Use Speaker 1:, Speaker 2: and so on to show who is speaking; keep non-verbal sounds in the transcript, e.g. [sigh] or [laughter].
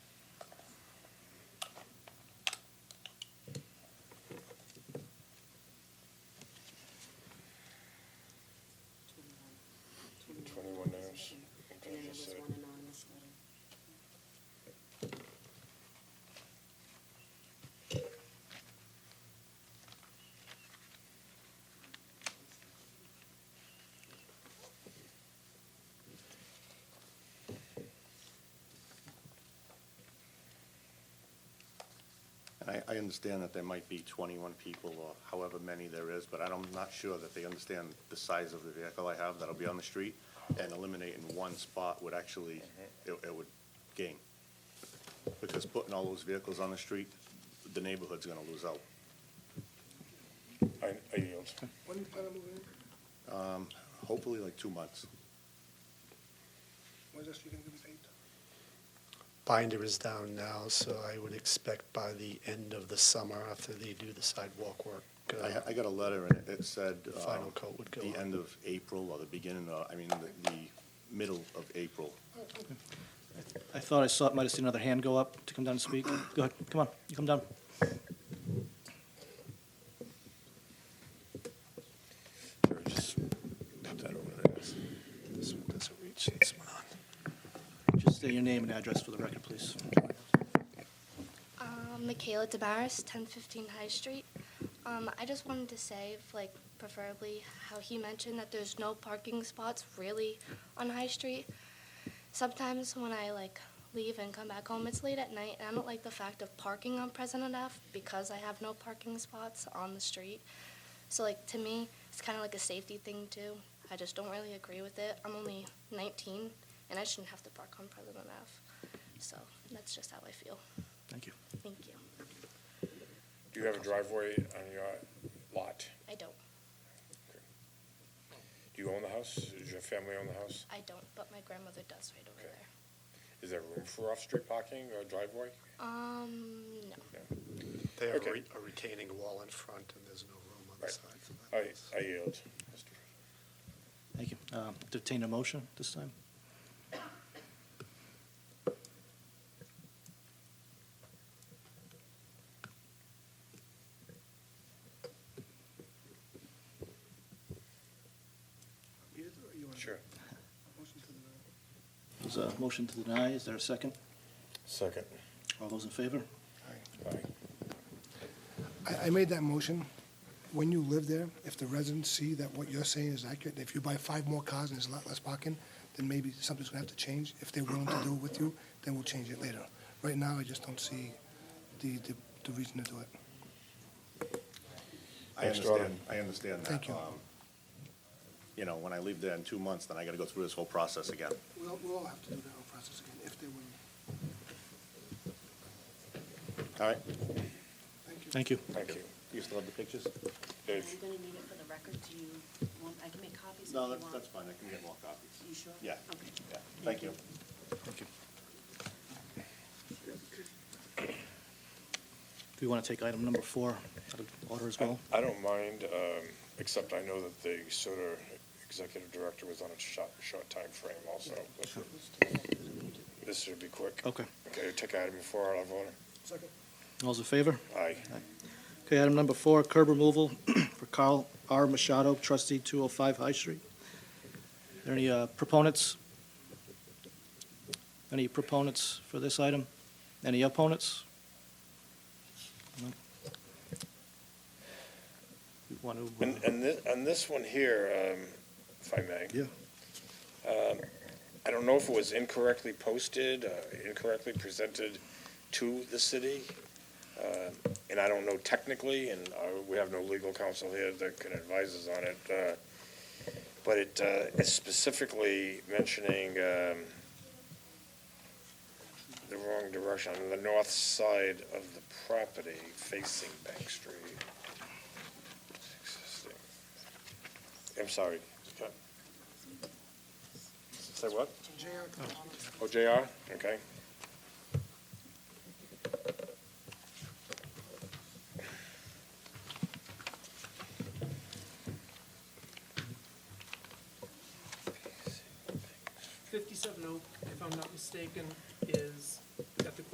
Speaker 1: And I, I understand that there might be twenty-one people or however many there is, but I'm not sure that they understand the size of the vehicle I have that'll be on the street. And eliminating one spot would actually, it, it would gain. Because putting all those vehicles on the street, the neighborhood's gonna lose out.
Speaker 2: I, I yield.
Speaker 3: When do you plan on moving in?
Speaker 1: Hopefully like two months.
Speaker 3: When's that street gonna be paved?
Speaker 4: binder is down now, so I would expect by the end of the summer, after they do the sidewalk work, uh,
Speaker 1: I, I got a letter and it said.
Speaker 4: the
Speaker 1: um,
Speaker 4: final coat would go
Speaker 1: The
Speaker 4: on.
Speaker 1: end of April or the beginning, of- I mean, the, the middle of April.
Speaker 5: I thought I saw, might have seen another hand go up to come down and speak. Go ahead, come on, you come down.
Speaker 2: Just put that over there.
Speaker 4: This one doesn't reach, this one on.
Speaker 5: Just say your name and address for the record, please.
Speaker 6: Um, Michaela DeBarris, 1015 High Street. Um, I just wanted to say, if, like, preferably how he mentioned that there's no parking spots really on High Street. Sometimes when I, like, leave and come back home, it's late at night, and I don't like the fact of parking on President F because I have no parking spots on the street. So, like, to me, it's kind of like a safety thing, too. I just don't really agree with it. I'm only 19, and I shouldn't have to park on President F. So, that's just how I feel.
Speaker 5: Thank you.
Speaker 6: Thank you.
Speaker 2: Do you have a driveway on your lot?
Speaker 6: I don't.
Speaker 2: Do you own the house? Does your family own the house?
Speaker 6: I don't, but my grandmother does right over there.
Speaker 2: Is there room for off-street parking or driveway?
Speaker 6: Um, no.
Speaker 4: They have
Speaker 2: Okay.
Speaker 4: re- a retaining wall in front, and there's no room on the
Speaker 2: Right.
Speaker 4: side for that.
Speaker 2: I, I yield. Mr.
Speaker 5: Thank you. Uh, Entertain a motion this time?
Speaker 3: Read it, or you want?
Speaker 2: Sure.
Speaker 3: Motion to the,
Speaker 5: There's a motion to deny. Is there a second?
Speaker 2: Second.
Speaker 5: All those in favor?
Speaker 2: Aye.
Speaker 3: I, I made that motion. When you live there, if the residents see that what you're saying is accurate, if you buy five more cars and there's a lot less parking, then maybe something's gonna have to change. If they're willing to do it with you, then we'll change it later. Right now, I just don't see the, the, the reason to do it.
Speaker 1: I
Speaker 2: Thanks,
Speaker 1: understand,
Speaker 2: Jordan.
Speaker 1: I understand that.
Speaker 3: Thank you.
Speaker 1: Um, You know, when I leave there in two months, then I gotta go through this whole process again.
Speaker 3: We'll, we'll all have to do that whole process again, if they're willing.
Speaker 1: All right,
Speaker 3: Thank you.
Speaker 5: Thank you.
Speaker 2: Thank you.
Speaker 1: you still have the pictures?
Speaker 7: I'm
Speaker 2: Dave,
Speaker 7: gonna need it for the record, do you want, I can make copies if you
Speaker 1: No,
Speaker 7: want.
Speaker 1: that's, that's fine, I can get more copies.
Speaker 7: You sure?
Speaker 1: Yeah.
Speaker 7: Okay.
Speaker 1: Yeah, thank you.
Speaker 5: Do you want to take item number four out of order as well?
Speaker 2: I don't mind, um, except I know that the SOTA executive director was on a short, short frame also. but This should be quick.
Speaker 5: Okay.
Speaker 2: Okay, take item four out of order.
Speaker 3: Second.
Speaker 5: All those in favor?
Speaker 2: Aye.
Speaker 5: Okay, item number four, curb removal [clears throat] for Carl R. Machado, trustee 205 High Street. Are there Any uh, proponents? Any proponents for this item? Any opponents? No. You want to? uh,
Speaker 2: And, and this, and this one here, um, if I may. Um,
Speaker 5: Yeah.
Speaker 2: I don't know if it was incorrectly posted, uh, incorrectly presented to the city, uh, and I don't know technically, and uh, we have no legal counsel here that can advise us on it, uh, but it uh, is specifically mentioning um, the wrong direction, on the north side of the property facing Bank Street. Existing. I'm sorry. Okay. Say what? Oh, JR, okay.
Speaker 8: Fifty-seven Oak, if I'm not mistaken, is